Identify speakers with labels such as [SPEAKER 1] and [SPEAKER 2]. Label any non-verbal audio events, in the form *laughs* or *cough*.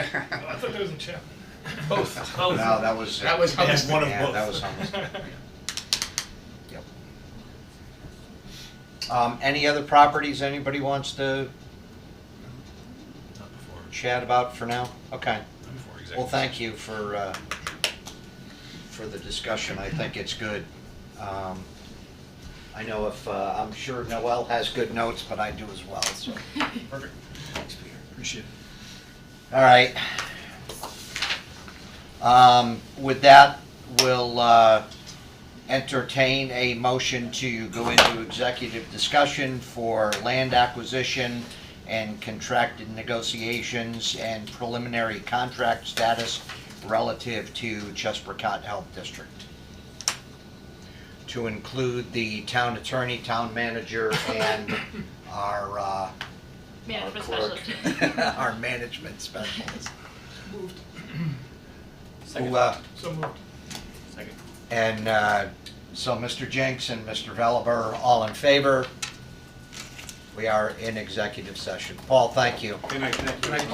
[SPEAKER 1] Sanders and Chapman?
[SPEAKER 2] *laughs*
[SPEAKER 3] *laughs*
[SPEAKER 2] Both.
[SPEAKER 3] No,
[SPEAKER 2] Both.
[SPEAKER 3] that was.
[SPEAKER 1] That was
[SPEAKER 3] yeah,
[SPEAKER 1] Hubbard's.
[SPEAKER 2] one of
[SPEAKER 3] yeah,
[SPEAKER 2] both.
[SPEAKER 3] That
[SPEAKER 2] *laughs*
[SPEAKER 3] was Hubbard's. Yep. Um, any other properties anybody wants to
[SPEAKER 2] Not before,
[SPEAKER 3] chat about for now? Okay.
[SPEAKER 2] not before executive.
[SPEAKER 3] Well, thank you for, uh, for the discussion. I think it's good. Um, I know if, uh, I'm sure Noel has good notes, but I do as well, so.
[SPEAKER 2] session. Perfect. Thanks, Peter. Appreciate it.
[SPEAKER 3] All right. Um, With that, we'll uh, entertain a motion to go into executive discussion for land acquisition and contracted negotiations and preliminary contract status relative to Chesapeake Health District. To include the town attorney, town manager, and our uh, *laughs*
[SPEAKER 4] Management
[SPEAKER 3] our clerk.
[SPEAKER 4] specialist.
[SPEAKER 3] Our management specialist. Who, uh,
[SPEAKER 1] So moved.
[SPEAKER 2] Second.
[SPEAKER 3] And uh, so Mr. Jenks and Mr. Veliver, all in favor? We are in executive session. Paul, thank you.
[SPEAKER 2] Good night, thank you.